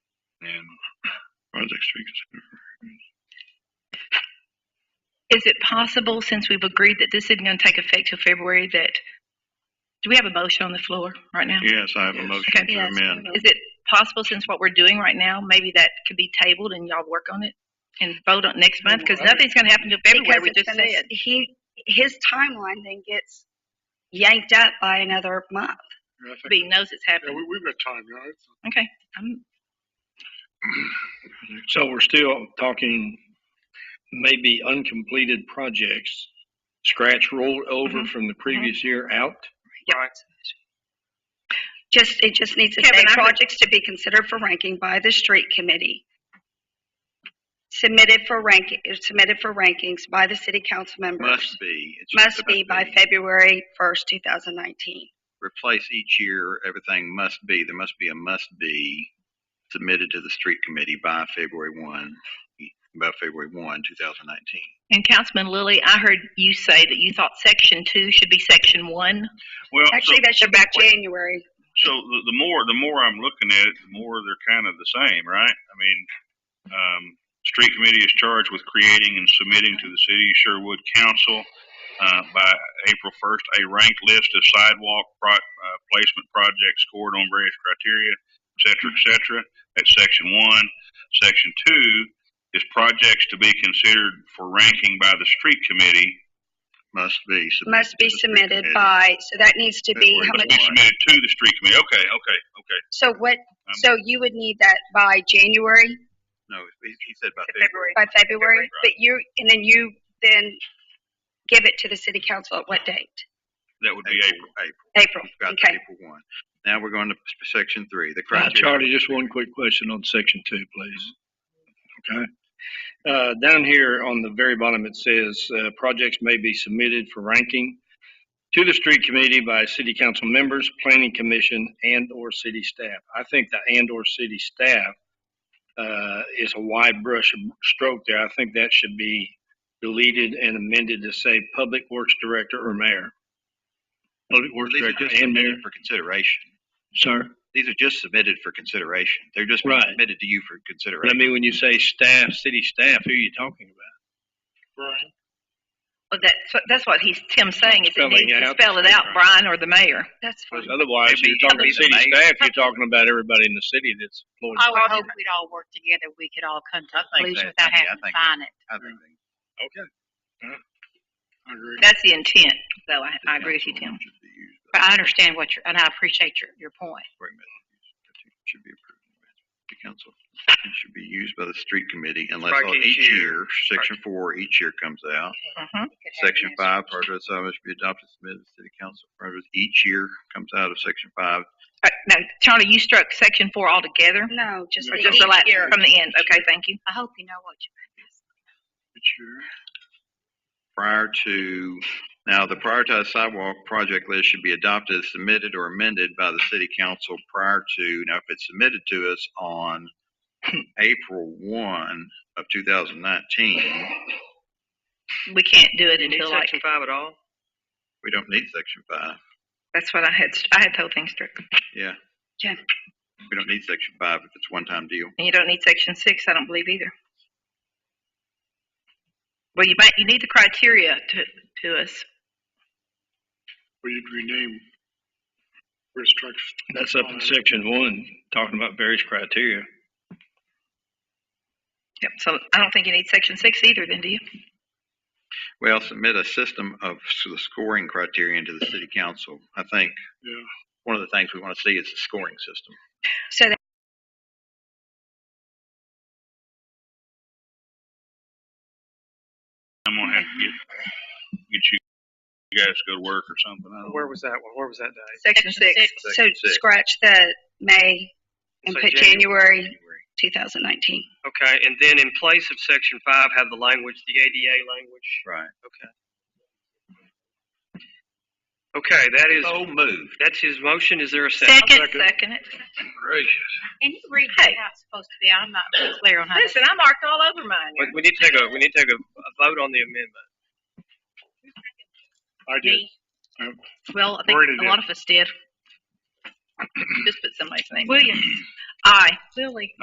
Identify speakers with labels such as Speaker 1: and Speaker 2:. Speaker 1: and projects to be considered.
Speaker 2: Is it possible, since we've agreed that this isn't going to take effect till February, that, do we have a motion on the floor right now?
Speaker 1: Yes, I have a
Speaker 3: Yes.
Speaker 1: motion to
Speaker 2: Okay.
Speaker 1: amend.
Speaker 2: Is it possible, since what we're doing right now, maybe that could be tabled and y'all work on it and vote on it next month? Because nothing's going to happen till February,
Speaker 3: Because
Speaker 2: we
Speaker 3: it's
Speaker 2: just
Speaker 3: gonna,
Speaker 2: said.
Speaker 3: he, his timeline then gets yanked up by another month.
Speaker 4: Yeah, I think-
Speaker 2: Everybody knows it's
Speaker 4: yeah,
Speaker 2: happening.
Speaker 4: we, we've got time, you know, it's,
Speaker 2: Okay. I'm-
Speaker 5: So we're still talking maybe uncompleted projects, scratch rolled
Speaker 6: Mm-hmm.
Speaker 5: over from the previous year out?
Speaker 3: Just, it just needs to
Speaker 2: Kevin,
Speaker 3: say
Speaker 2: I heard-
Speaker 3: projects to be considered for ranking by the street committee. Submitted for ranking, submitted for rankings by the city council members.
Speaker 6: Must be. It's just
Speaker 3: Must be
Speaker 6: about
Speaker 3: by
Speaker 6: the-
Speaker 3: February 1st, 2019.
Speaker 6: Replace each year, everything must be, there must be a must be submitted to the street committee by February one, by February one, two thousand nineteen.
Speaker 2: And Councilman Lilly, I heard you say that you thought section two should be section one.
Speaker 1: Well, so,
Speaker 3: Actually, that should be January.
Speaker 1: so the, the more, the more I'm looking at it, the more they're kind of the same, right? I mean, um, street committee is charged with creating and submitting to the city of Sherwood council, uh, by April first, a ranked list of sidewalk pro, uh, placement projects scored on various criteria, et cetera, et cetera. That's section one. Section two is projects to be considered for ranking by the street committee.
Speaker 6: Must be. submitted
Speaker 3: Must be
Speaker 6: to the street
Speaker 3: submitted
Speaker 6: committee.
Speaker 3: by, so that needs to be,
Speaker 6: February
Speaker 3: how
Speaker 1: Must
Speaker 3: much,
Speaker 1: be submitted to the street committee. Okay, okay, okay.
Speaker 3: so what, so you would need that by January,
Speaker 6: No, he he said by February.
Speaker 2: February.
Speaker 3: by February?
Speaker 6: February,
Speaker 3: But you, and then you then give it to the city council at what date?
Speaker 1: That would be April.
Speaker 6: April.
Speaker 3: April,
Speaker 6: We've got the
Speaker 3: okay.
Speaker 6: April one. Now we're going to section three, the
Speaker 5: Now,
Speaker 6: criteria.
Speaker 5: Charlie, just one quick question on section two, please. Okay. Uh, down here on the very bottom, it says, uh, projects may be submitted for ranking to the street committee by city council members, planning commission, and/or city staff. I think the and/or city staff, uh, is a wide brush stroke there. I think that should be deleted and amended to say public works director or mayor. Public works
Speaker 6: These are
Speaker 5: director
Speaker 6: just
Speaker 5: and mayor,
Speaker 6: submitted for consideration.
Speaker 5: sir.
Speaker 6: These are just submitted for consideration. They're just being
Speaker 5: Right.
Speaker 6: submitted to you for
Speaker 5: But I
Speaker 6: consideration.
Speaker 5: mean, when you say staff, city staff, who are you talking about?
Speaker 4: Brian,
Speaker 2: Well, that's, what- that's what he's, Tim's saying, is it
Speaker 5: Spelling
Speaker 2: needs
Speaker 5: it
Speaker 2: to
Speaker 5: out.
Speaker 2: spell it out, Brian or the mayor.
Speaker 3: That's fine.
Speaker 5: 'Cause Otherwise,
Speaker 6: Maybe-
Speaker 5: you're talking
Speaker 6: maybe
Speaker 5: city
Speaker 6: the mayor.
Speaker 5: staff, you're talking about everybody in the city that's employed.
Speaker 2: Oh,
Speaker 7: I would
Speaker 3: Well,
Speaker 7: hope we'd all work together, we could all come to
Speaker 6: I
Speaker 7: a
Speaker 6: think
Speaker 7: conclusion
Speaker 6: that-
Speaker 7: without
Speaker 6: I mean, I
Speaker 7: having to
Speaker 6: think
Speaker 7: sign it.
Speaker 6: I think
Speaker 4: I agree.
Speaker 2: That's the intent, though, I,
Speaker 6: the
Speaker 2: I agree with you,
Speaker 6: council
Speaker 2: Tim.
Speaker 6: should be used by
Speaker 7: But I understand what you're, and I appreciate your, your point.
Speaker 6: spring meeting. Should be approved. The council It should be used by the street committee unless
Speaker 5: Strike
Speaker 6: all-
Speaker 5: each
Speaker 6: each
Speaker 5: year.
Speaker 6: year, section four, each year comes out.
Speaker 2: Mhm.
Speaker 6: Section five, part of the assignment should be adopted, submitted to the city council. Part of it each year comes out of section five.
Speaker 2: Uh, No, Charlie, you struck section four altogether?
Speaker 3: No, just
Speaker 2: Or
Speaker 3: the
Speaker 2: just the last,
Speaker 3: each year.
Speaker 2: from the end? Okay, thank you.
Speaker 7: I hope you know what you're
Speaker 6: prior to, now, the prioritized sidewalk project list should be adopted, submitted, or amended by the city council prior to, now, if it's submitted to us on April one of two thousand nineteen,
Speaker 2: We can't do it until like,
Speaker 8: five at all?
Speaker 6: we don't need section five.
Speaker 2: that's what I had, I had the whole thing struck.
Speaker 6: Yeah.
Speaker 3: Yeah.
Speaker 6: We don't need section five if it's one-time deal.
Speaker 2: And you don't need section six, I don't believe either. Well, you might, you need the criteria to, to us.
Speaker 4: Well, you'd rename restrictions.
Speaker 5: That's up in section one, talking about various criteria.
Speaker 2: Yep, so I don't think you need section six either then, do you?
Speaker 6: Well, submit a system of s- the scoring criterion to the city council. I think
Speaker 4: Yeah.
Speaker 6: one of the things we want to see is the scoring system.
Speaker 3: So that
Speaker 1: I'm gonna have to get, get you you guys to go to work or something. I don't know.
Speaker 8: Where was that one? Where was that day?
Speaker 2: Section six.
Speaker 3: So
Speaker 6: Section six.
Speaker 3: scratch the May and
Speaker 8: Say
Speaker 3: put January 2019.
Speaker 8: Okay, and then in place of section five, have the language, the ADA language.
Speaker 6: Right.
Speaker 8: Okay, that is,
Speaker 6: So moved.
Speaker 8: that's his motion. Is there a second?
Speaker 2: Second, second it.
Speaker 7: And you read
Speaker 2: Hey.
Speaker 7: how it's supposed to be, I'm not real clear on how to
Speaker 2: Listen, I marked all over mine.
Speaker 8: We, we need to take a, we need to take a, a vote on the amendment.
Speaker 4: I did.
Speaker 2: Well, I think
Speaker 4: Worded
Speaker 2: a
Speaker 4: it.
Speaker 2: lot of us did. Just put somebody's name.
Speaker 7: Williams.
Speaker 2: Aye. Lily.